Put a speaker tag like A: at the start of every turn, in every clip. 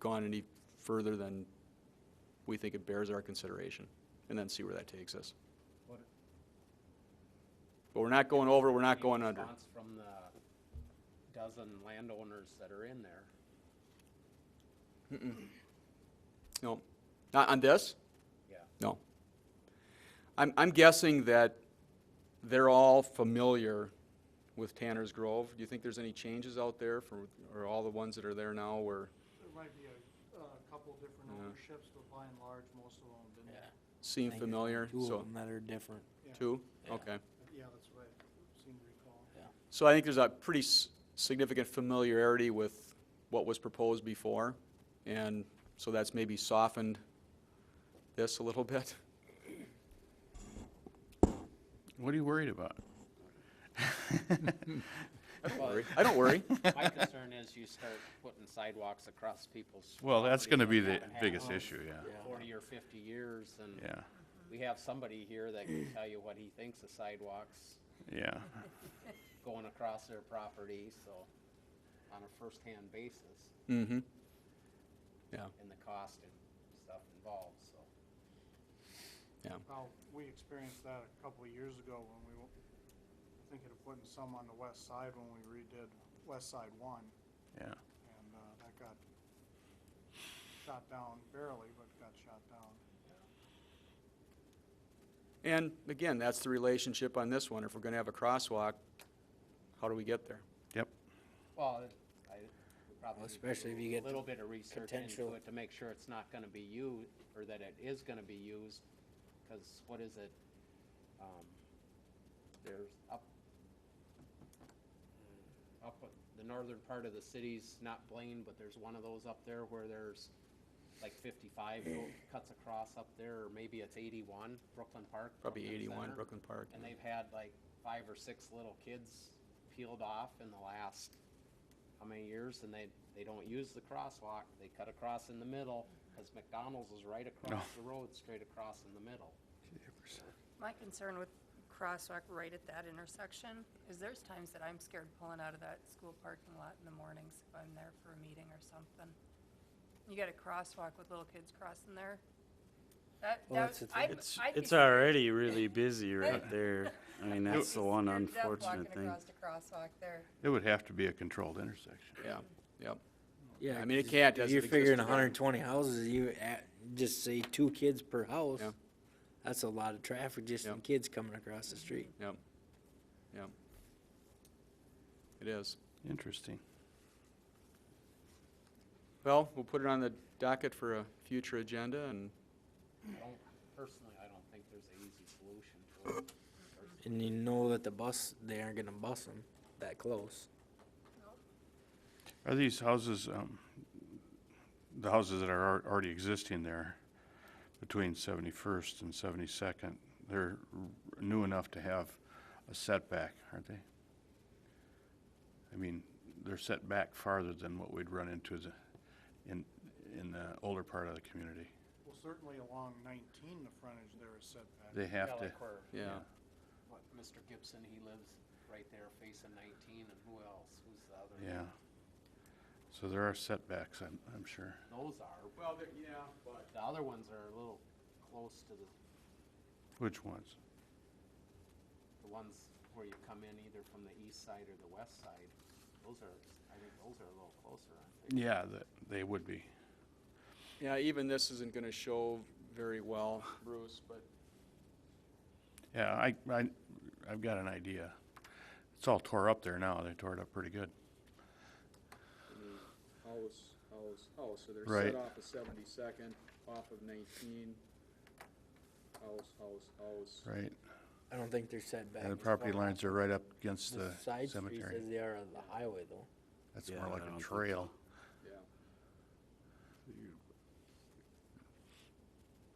A: gone any further than we think it bears our consideration, and then see where that takes us.
B: What-
A: But we're not going over, we're not
B: any
A: going under.
B: response From the dozen landowners that are in there.
A: No, not on this?
B: Yeah.
A: No. I'm, I'm guessing that they're all familiar with Tanner's Grove. Do you think there's any changes out there for, or all the ones that are there now where,
C: There might be a, a couple different
A: Yeah.
C: ownerships, but by and large, most of them have been,
A: seem
D: think
A: familiar?
D: Two of
A: So,
D: them that are different.
C: yeah,
A: two?
D: Yeah.
A: Okay.
C: yeah, that's what I seem to recall.
A: So I think there's a pretty s- significant familiarity with what was proposed before, and so that's maybe softened this a little bit.
E: What are you worried about?
A: I don't worry. I don't worry.
B: My concern is you start putting sidewalks across people's.
E: Well, that's going to
B: property
E: be
B: that
E: the
B: haven't had
E: biggest
B: one
E: issue,
B: for
E: yeah,
B: Forty or fifty years, and
E: yeah,
B: we have somebody here that can tell you what he thinks of sidewalks
E: yeah.
B: going across their property, so, on a first-hand basis,
A: Mm-hmm. Yeah,
B: and the cost and stuff involved, so.
A: yeah.
C: Well, we experienced that a couple of years ago when we were thinking of putting some on the west side when we redid West Side One,
E: Yeah,
C: and, uh, that got shot down barely, but got shot down.
A: And again, that's the relationship on this one. If we're gonna have a crosswalk, how do we get there?
E: yep.
B: Well, I probably.
D: especially if you
B: do
D: get
B: A little bit of research into
D: potential-
B: it to make sure it's not gonna be used, or that it is gonna be used, cause what is it? Um, There's up, up at the northern part of the city's not Blaine, but there's one of those up there where there's like fifty-five go- cuts across up there, or maybe it's eighty-one, Brooklyn Park.
A: Probably
B: Brooklyn
A: eighty-one
B: Center.
A: Brooklyn Park.
B: And they've had like five or six little kids peeled off in the last, how many years? And they, they don't use the crosswalk, they cut across in the middle, because McDonald's is right across the road, straight across in the middle.
F: My concern with crosswalk right at that intersection is there's times that I'm scared pulling out of that school parking lot in the mornings if I'm there for a meeting or something. You got a crosswalk with little kids crossing there. That,
D: Well,
F: that,
D: that's the thing.
F: I'd,
G: It's,
F: I'd be.
G: it's already really busy right there. I mean, that's the one
F: scared to death
G: unfortunate thing.
F: Walking across a crosswalk there.
E: It would have to be a controlled intersection.
A: Yeah, yep.
D: Yeah,
A: I mean, it
D: 'cause
A: can't,
D: if
A: doesn't
D: You're
A: exist
D: figuring
A: today.
D: hundred and twenty houses, you at, just say two kids per house.
A: Yeah.
D: That's a lot of traffic, just
A: Yeah.
D: in kids coming across the street.
A: Yep, yep. It is.
E: Interesting.
A: Well, we'll put it on the docket for a future agenda and,
B: I don't, personally, I don't think there's an easy solution to it.
D: And you know that the bus, they aren't gonna bus them that close.
E: Are these houses, um, the houses that are al- already existing there between 71st and 72nd, they're r- new enough to have a setback, aren't they? I mean, they're set back farther than what we'd run into the, in, in the older part of the community.
C: Well, certainly along nineteen, the frontage there is set back.
E: They have
B: Yeah,
E: to,
B: like where-
A: yeah.
B: What, Mr. Gibson, he lives right there facing nineteen, and who else? Who's the other?
E: yeah. So there are setbacks, I'm, I'm sure.
B: Those are, but
A: Well, yeah, but.
B: the other ones are a little close to the
E: Which ones?
B: the ones where you come in either from the east side or the west side, those are, I think those are a little closer, aren't they?
E: Yeah, that, they would be.
A: Yeah, even this isn't gonna show very well, Bruce, but
E: Yeah, I, I, I've got an idea. It's all tore up there now. They tore it up pretty good.
A: house, house, house, oh, so they're
E: Right.
A: set off of seventy-second, off of nineteen. House, house, house.
E: Right.
D: I don't think they're set back.
E: And the
D: as
E: property
D: far
E: lines are right up against the
D: The side streets
E: cemetery.
D: as they are on the highway though.
E: That's
G: Yeah,
E: more
G: I
E: like
G: don't
E: a
G: think
E: trail.
A: Yeah.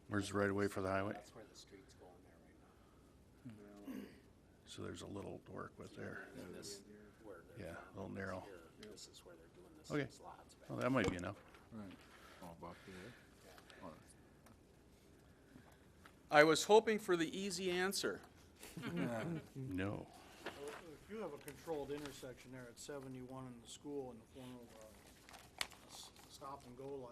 E: Where's the right of way for the highway?
B: That's where the street's going there right now.
E: So there's a little to work with there.
B: And then this, where they're.
E: Yeah, a
B: farming
E: little
B: is
E: narrow.
B: here. This is where they're doing the
E: Okay.
B: six lots back.
E: Well, that might be enough.
A: I was hoping for the easy answer.
E: No.
C: So If you have a controlled intersection there at seventy-one in the school in the form of a s- stop and go light,